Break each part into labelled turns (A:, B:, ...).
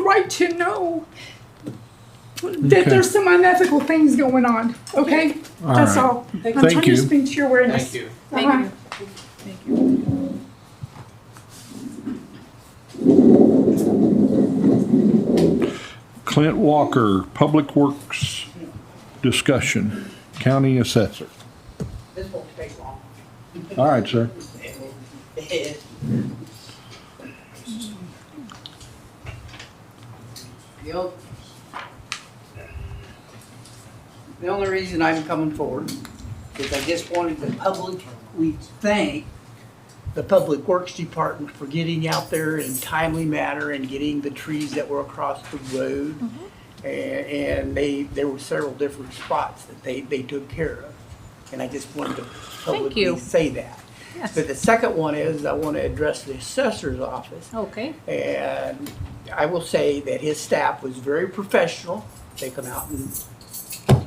A: right to know that
B: Okay.
A: there's some unethical things going on, okay?
B: All
A: That's
B: right.
A: all. I'm
B: Thank
A: trying to
B: you.
A: speak to your awareness.
C: Thank you.
D: Thank
A: Uh-huh.
D: you.
B: Clint Walker, Public Works Discussion, County Assessor.
E: This won't take long.
B: All right, sir.
E: The ol- the only reason I'm coming forward is I just wanted the public, we thank the Public Works Department for getting out there in timely manner and getting the trees that were across the road. And, and they, there were several different spots that they, they took care of. And I just wanted to
D: you.
E: publicly say that. But the second one is, I want to address the assessor's office.
D: Okay.
E: And I will say that his staff was very professional. They come out and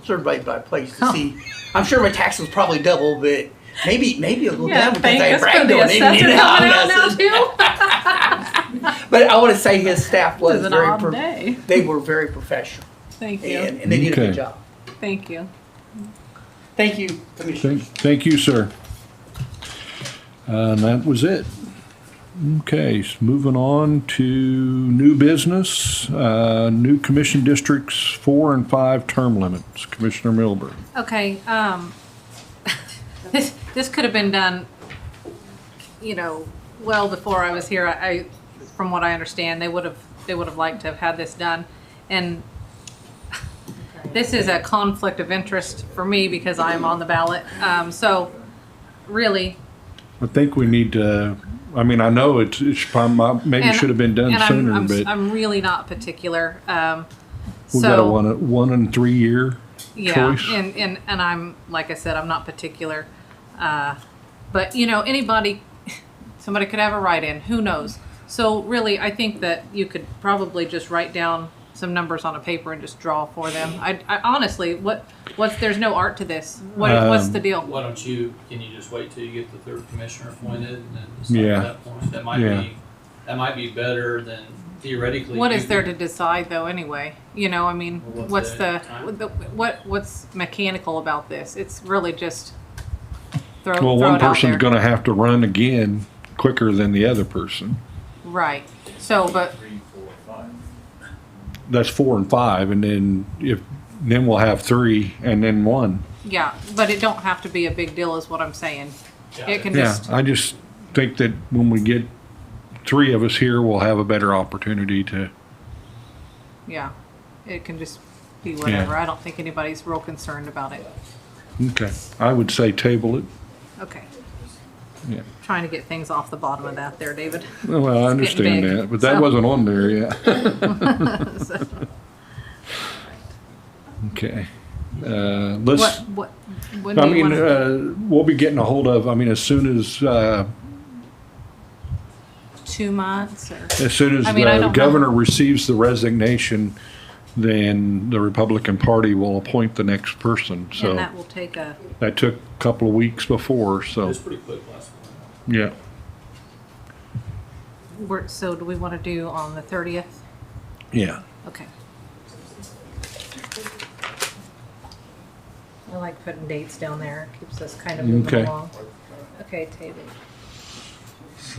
E: surveyed by place to see. I'm sure my tax was probably double, but maybe, maybe a little
D: Yeah,
E: down because
D: thank
E: I
D: us for
E: bragged
D: the
E: on it.
D: assessor
E: you
D: coming
E: know,
D: out now
E: that's it.
D: too.
E: But I want to say his staff
D: It
E: was
D: was an
E: very,
D: odd
E: pro-
D: day.
E: they were very professional
D: Thank you.
E: and, and they did a
B: Okay.
E: good job.
D: Thank you.
E: Thank you, Commissioner.
B: Thank, thank you, sir. And that was it. Okay, s- moving on to new business, uh, new commission districts, four and five term limits. Commissioner Milburn.
D: Okay, um, this, this could have been done, you know, well before I was here. I, I- from what I understand, they would have, they would have liked to have had this done. And this is a conflict of interest for me because I am on the ballot. Um, so really,
B: I think we need to, I mean, I know it's, it's, prob- maybe
D: And-
B: should have been done
D: and I'm,
B: sooner,
D: I'm,
B: but
D: I'm really not particular. Um,
B: we got a
D: so-
B: one, one and three year.
D: yeah
B: choice.
D: and, and and i'm like i said i'm not particular uh, but you know anybody somebody could have a write-in who knows so really i think that you could probably just write down some numbers on a paper and just draw for them i, I honestly what what's there's no art to this what, what's
B: Um,
D: the deal
C: Why don't you, can you just wait till you get the third commissioner appointed and then decide
B: Yeah.
C: at that point? That might
B: Yeah.
C: be, that might be better than theoretically.
D: what
C: you
D: is there to
C: could-
D: decide though anyway you know i mean
C: Well,
D: what's
C: what's
D: the,
C: the
D: the what what's mechanical about this it's really just throw,
B: Well,
D: throw
B: one
D: it out there.
B: person's gonna have to run again quicker than the other person.
D: right so but
B: That's four and five, and then if, then we'll have three and then one.
D: Yeah, but it don't have to be a big deal, is what I'm saying.
C: Yeah.
D: It can
B: Yeah,
D: just,
B: I just think that when we get three of us here, we'll have a better opportunity to,
D: yeah, it can just be whatever. I don't think anybody's real concerned about it.
B: okay, I would say table it.
D: Okay.
B: Yeah.
D: Trying to get things off the bottom of that there, David.
B: Well, I
D: It's getting
B: understand
D: big,
B: that, but that
D: so.
B: wasn't on there yet.
D: So,
B: Okay. Uh, let's,
D: What, what, when
B: I
D: do you
B: mean,
D: want to?
B: uh, we'll be getting a hold of, I mean, as soon as, uh,
D: Two months or?
B: As soon as
D: I mean, I
B: the
D: don't know.
B: governor receives the resignation, then the Republican Party will appoint the next person.
D: And
B: So
D: that will take a,
B: that took a couple of weeks before,
C: It
B: so,
C: was pretty quick last one.
B: yeah.
D: we're- so do we want to do on the thirtieth?
B: Yeah.
D: Okay. I like putting dates down there. Keeps us kind of moving
B: Okay.
D: along. Okay, table.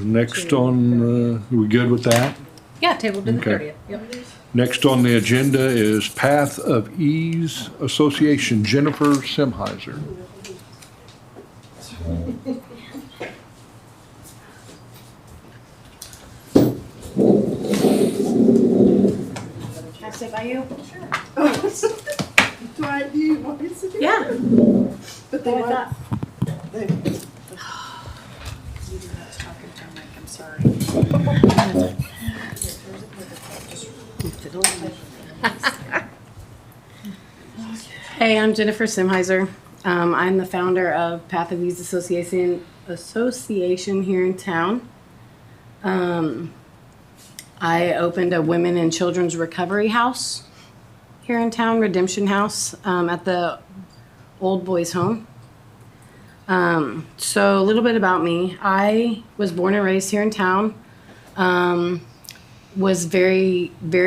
B: Next on, uh, are we good with that?
D: Yeah, table to the
B: Okay.
D: thirtieth. Yep.
B: Next on the agenda is Path of Ease Association, Jennifer Simheiser.
F: Can I sit by you?
A: Do I, do you want me to do
F: Yeah.
A: But they want-
F: I'm sorry. Just Hey, I'm Jennifer Simheiser. Um, I'm the founder of Path of Ease Association, Association here in town. Um, I opened a women and children's recovery house here in town, Redemption House, um, at the old boys' home. Um, so a little bit about me. I was born and raised here in town. Um, was very, very